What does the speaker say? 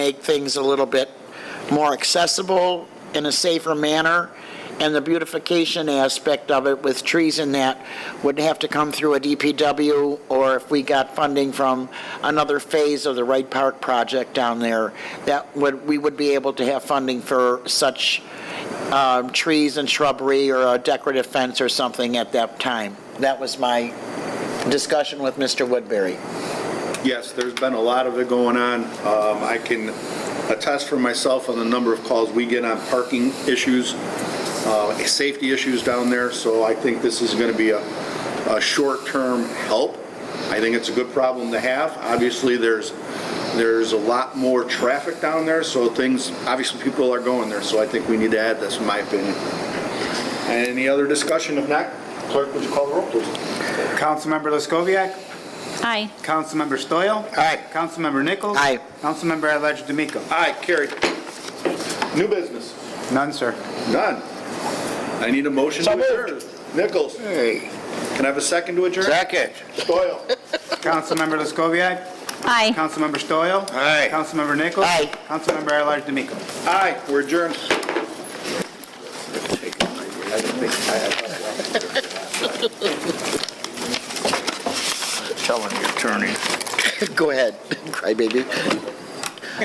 make things a little bit more accessible in a safer manner, and the beautification aspect of it with trees in that would have to come through a DPW, or if we got funding from another phase of the Wright Park project down there, that would, we would be able to have funding for such um, trees and shrubbery or a decorative fence or something at that time. That was my discussion with Mr. Woodbury. Yes, there's been a lot of it going on. Um, I can attest for myself on the number of calls we get on parking issues, uh, safety issues down there, so I think this is going to be a, a short-term help. I think it's a good problem to have. Obviously, there's, there's a lot more traffic down there, so things, obviously, people are going there, so I think we need to add this, in my opinion. Any other discussion? If not, clerk, would you call the roll, please? Councilmember Laskoviac. Aye. Councilmember Stoyl. Aye. Councilmember Nichols. Aye. Councilmember at-large D'Amico. Aye, carried. New business? None, sir. None. I need a motion to adjourn. Nichols? Can I have a second to adjourn? Second. Doyle? Councilmember Laskoviac. Aye. Councilmember Stoyl. Aye. Councilmember Nichols. Aye. Councilmember at-large D'Amico. Aye, we're adjourned. Telling your attorney. Go ahead, crybaby.